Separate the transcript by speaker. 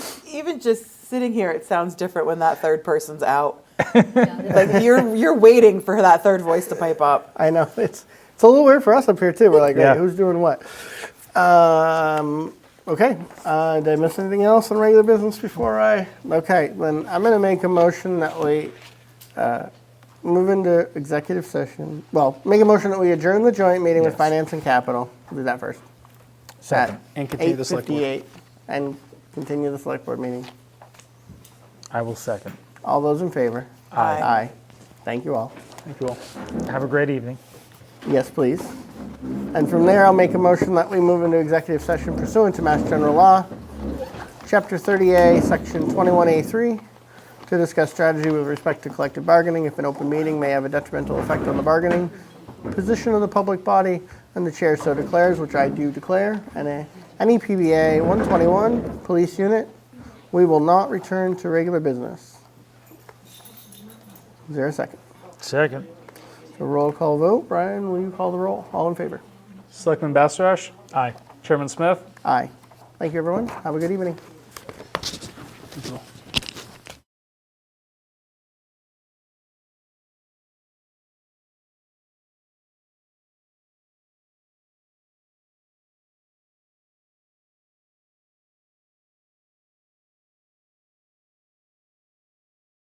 Speaker 1: even just sitting here, it sounds different when that third person's out. like you're you're waiting for that third voice to pipe up.
Speaker 2: I know it's it's a little weird for us up here too. We're like,
Speaker 3: Yeah.
Speaker 2: wait, who's doing what? Um, okay. Uh, did I miss anything else on regular business before I? Okay, then I'm going to make a motion that we uh, move into executive session. Well, make a motion that we adjourn the joint meeting with
Speaker 3: Yes.
Speaker 2: finance and capital. We'll do that first.
Speaker 3: Second.
Speaker 4: And continue the select board.
Speaker 2: 8:58, and continue the select board meeting.
Speaker 3: I will second.
Speaker 2: All those in favor?
Speaker 1: Aye.
Speaker 2: Aye. Thank you all.
Speaker 3: Thank you all. Have a great evening.
Speaker 2: Yes, please. And from there, I'll make a motion that we move into executive session pursuant to Mass General Law, Chapter 30A, Section 21A3, to discuss strategy with respect to collective bargaining if an open meeting may have a detrimental effect on the bargaining position of the public body, and the chair so declares, which I do declare, and a- any PBA 121, Police Unit, we will not return to regular business. Is there a second?
Speaker 3: Second.
Speaker 2: A roll call vote. Brian, will you call the roll? All in favor?
Speaker 4: Selectman Bassarash,
Speaker 3: Aye.
Speaker 4: Chairman Smith,
Speaker 2: Aye. Thank you, everyone. Have a good evening.